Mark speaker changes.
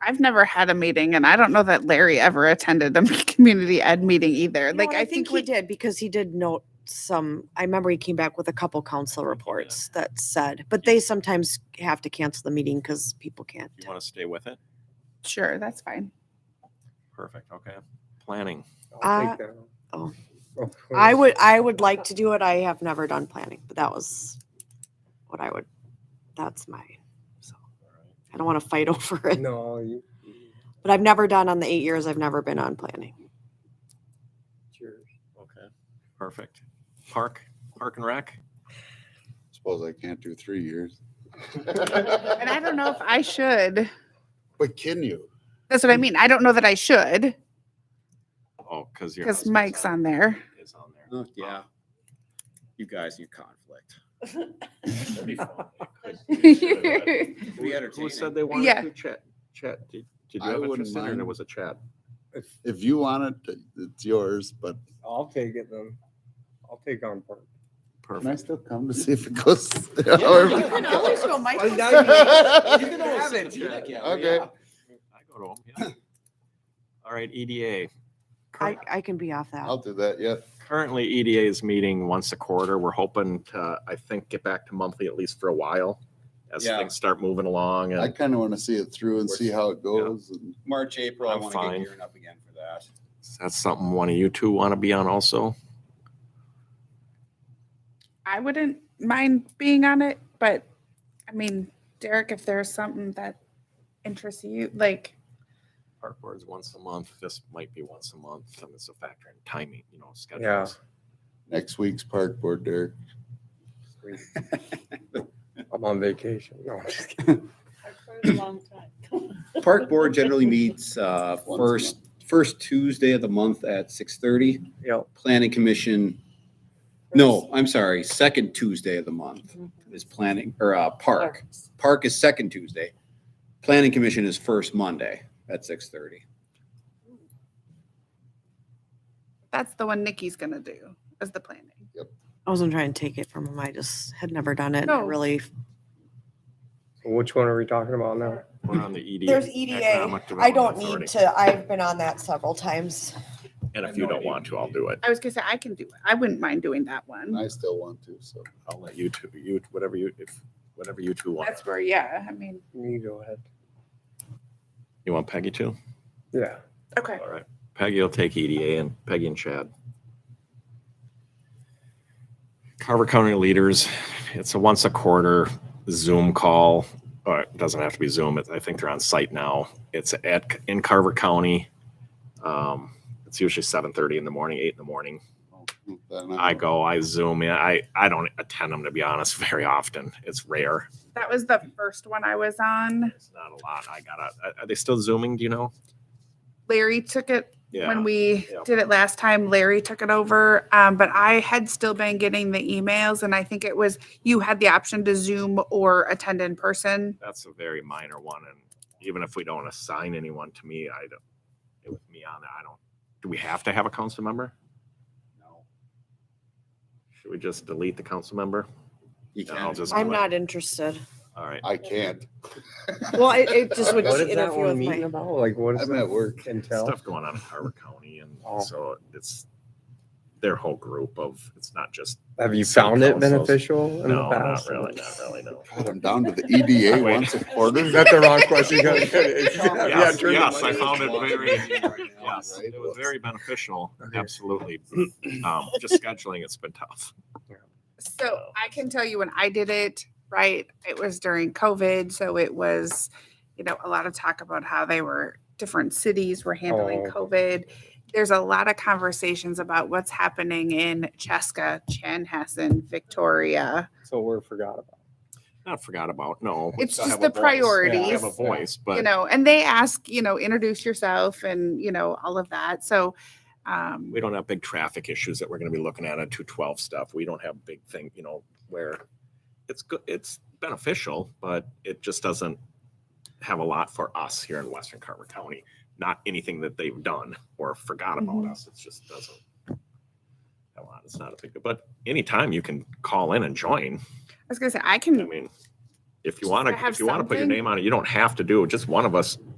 Speaker 1: I've never had a meeting, and I don't know that Larry ever attended a community ed meeting either.
Speaker 2: You know
Speaker 1: like,
Speaker 2: what,
Speaker 1: I,
Speaker 2: think,
Speaker 1: think,
Speaker 2: he did because he did note some. I remember he came back with a couple council reports that said, but they sometimes have to cancel the meeting because people can't.
Speaker 3: You want to stay with it?
Speaker 1: we, sure, that's fine.
Speaker 3: Perfect, okay. Planning.
Speaker 2: Uh, oh. I would, I would like to do it. I have never done planning, but that was what I would. That's my. So I don't want to fight over it,
Speaker 4: No, you,
Speaker 2: but I've never done on the eight years I've never been on planning.
Speaker 4: cheers.
Speaker 3: Okay. Perfect. Park, Park and Rec?
Speaker 5: Suppose I can't do three years.
Speaker 1: And I don't know if I should.
Speaker 5: But can you?
Speaker 1: That's what I mean. I don't know that I should
Speaker 3: Oh, because your.
Speaker 1: because
Speaker 3: husband's
Speaker 1: Mike's on there.
Speaker 3: Is on there.
Speaker 5: Huh?
Speaker 6: Yeah. You guys, you conflict.
Speaker 3: That'd be fun.
Speaker 6: It'd be
Speaker 3: Who
Speaker 6: entertaining.
Speaker 3: said they wanted
Speaker 1: Yeah.
Speaker 3: to chat, chat? Did did you
Speaker 5: I
Speaker 3: have
Speaker 5: wouldn't
Speaker 3: interest in it or
Speaker 5: mind.
Speaker 3: there was a chat?
Speaker 5: If you want it, it's yours, but
Speaker 4: I'll take it then. I'll take on part.
Speaker 5: can I
Speaker 3: Perfect.
Speaker 5: still come to see if it goes?
Speaker 1: go
Speaker 4: Well, now You can always have it.
Speaker 5: Okay.
Speaker 3: I go to them, yeah. All right, E EDA.
Speaker 2: I,
Speaker 3: Current-
Speaker 2: I can be off that.
Speaker 5: I'll do that, yeah.
Speaker 3: Currently, EDA is meeting once a quarter. We're hoping to, I think, get back to monthly at least for a while as
Speaker 6: Yeah.
Speaker 3: things start moving along
Speaker 5: I
Speaker 3: and
Speaker 5: kind of want to see it through and see how it goes. and-
Speaker 6: March, April, I
Speaker 3: I'm
Speaker 6: want to get
Speaker 3: fine.
Speaker 6: gearing up again for that.
Speaker 3: that's something one of you two want to be on also.
Speaker 1: I wouldn't mind being on it, but I mean, Derek, if there's something that interests you, like,
Speaker 3: Park boards once a month. This might be once a month. And it's a factor in timing, you know,
Speaker 4: Yeah.
Speaker 3: schedules.
Speaker 5: Next week's park board, Derek.
Speaker 4: I'm on vacation. No, I'm just kidding.
Speaker 6: Park Board generally meets uh, first, first Tuesday of the month at 6:30.
Speaker 4: Yep.
Speaker 6: Planning Commission, no, I'm sorry, second Tuesday of the month is planning, or uh, Park. Park is second Tuesday. Planning Commission is first Monday at 6:30.
Speaker 1: that's the one Nikki's going to do as the planning.
Speaker 2: I wasn't trying to take it from him. I just had never done it. and I
Speaker 1: No.
Speaker 2: Really,
Speaker 4: Which one are we talking about now?
Speaker 3: We're on the EDA.
Speaker 2: There's EDA.
Speaker 3: Economic
Speaker 2: I don't
Speaker 3: Development
Speaker 2: need
Speaker 3: Authority.
Speaker 2: to, I've been on that several times.
Speaker 3: And if you don't want to, I'll do it.
Speaker 1: I was going to say, I can do it. I wouldn't mind doing that
Speaker 5: And
Speaker 1: one.
Speaker 5: I still want to, so.
Speaker 3: I'll let you two, you, whatever you, if, whatever you two want.
Speaker 1: That's where, yeah, I mean,
Speaker 4: You go ahead.
Speaker 3: You want Peggy too?
Speaker 4: Yeah.
Speaker 1: okay.
Speaker 3: All right. Peggy will take EDA and Peggy and Chad. Carver County Leaders, it's a once a quarter Zoom call. Or it doesn't have to be Zoom. It's, I think they're on site now. It's at in Carver County. Um, it's usually seven thirty in the morning, eight in the morning.
Speaker 5: then
Speaker 3: I go, I zoom in. I, I don't attend them to be honest very often. It's rare.
Speaker 1: That was the first one I was on.
Speaker 3: It's not a lot. I gotta. are- Are they still zooming? Do you know?
Speaker 1: Larry took it
Speaker 3: Yeah.
Speaker 1: when we
Speaker 3: yeah.
Speaker 1: did it last time, Larry took it over. Um, but I had still been getting the emails, and I think it was you had the option to Zoom or attend in person.
Speaker 3: that's a very minor one, and even if we don't assign anyone to me, I don't, it was me on, it, I don't, do we have to have a council member?
Speaker 6: No.
Speaker 3: Should we just delete the council member?
Speaker 6: You
Speaker 3: And I'll
Speaker 6: can't.
Speaker 3: just
Speaker 2: I'm
Speaker 3: do it.
Speaker 2: not interested.
Speaker 3: All right,
Speaker 5: I can't.
Speaker 2: Well, it, it just would
Speaker 4: What is that
Speaker 2: interfere
Speaker 4: one
Speaker 2: with
Speaker 4: meeting
Speaker 2: my.
Speaker 4: about? Like what is
Speaker 5: I'm
Speaker 4: that
Speaker 5: at work.
Speaker 4: intel?
Speaker 3: stuff going on in Carver County, and
Speaker 4: Oh.
Speaker 3: so it's their whole group of, it's not just,
Speaker 4: Have you
Speaker 3: City
Speaker 4: found it
Speaker 3: councils.
Speaker 4: beneficial in the
Speaker 3: no, not
Speaker 4: past?
Speaker 3: really, not really, no.
Speaker 5: God, I'm down to the EDA
Speaker 3: Wait.
Speaker 5: once a quarter.
Speaker 4: That's the wrong question. You gotta- Yeah,
Speaker 3: Yes,
Speaker 4: turn the
Speaker 3: yes, I
Speaker 4: mic.
Speaker 3: found it very- Yes,
Speaker 5: Yes,
Speaker 3: it
Speaker 5: it
Speaker 3: was
Speaker 5: was.
Speaker 3: very beneficial,
Speaker 4: Okay.
Speaker 3: absolutely. Um, just scheduling, it's been tough.
Speaker 1: So I can tell you when I did it, right? It was during COVID. So it was, you know, a lot of talk about how they were different cities were handling
Speaker 4: Oh.
Speaker 1: COVID. There's a lot of conversations about what's happening in Cheska, Chanhassen, Victoria.
Speaker 4: So we're forgot about.
Speaker 3: Not forgot about, no. we
Speaker 1: It's
Speaker 3: still
Speaker 1: just
Speaker 3: have a
Speaker 1: the
Speaker 3: voice. We still
Speaker 1: priorities.
Speaker 3: Have a voice, but.
Speaker 1: you know, and they ask, you know, introduce yourself and, you know, all of that. So, um,
Speaker 3: we don't have big traffic issues that we're gonna be looking at on two twelve stuff. We don't have big thing, you know, where it's good, it's beneficial, but it just doesn't have a lot for us here in Western Carver County. Not anything that they've done or forgot about
Speaker 1: Mhm.
Speaker 3: us. It just doesn't. have A lot, it's not a big, but anytime you can call in and join.
Speaker 1: I was going to say, I
Speaker 3: I
Speaker 1: can
Speaker 3: mean, if you
Speaker 1: Just
Speaker 3: wanna,
Speaker 1: to have
Speaker 3: if you wanna put your
Speaker 1: something.
Speaker 3: name on it, you don't have to do, it. just one of us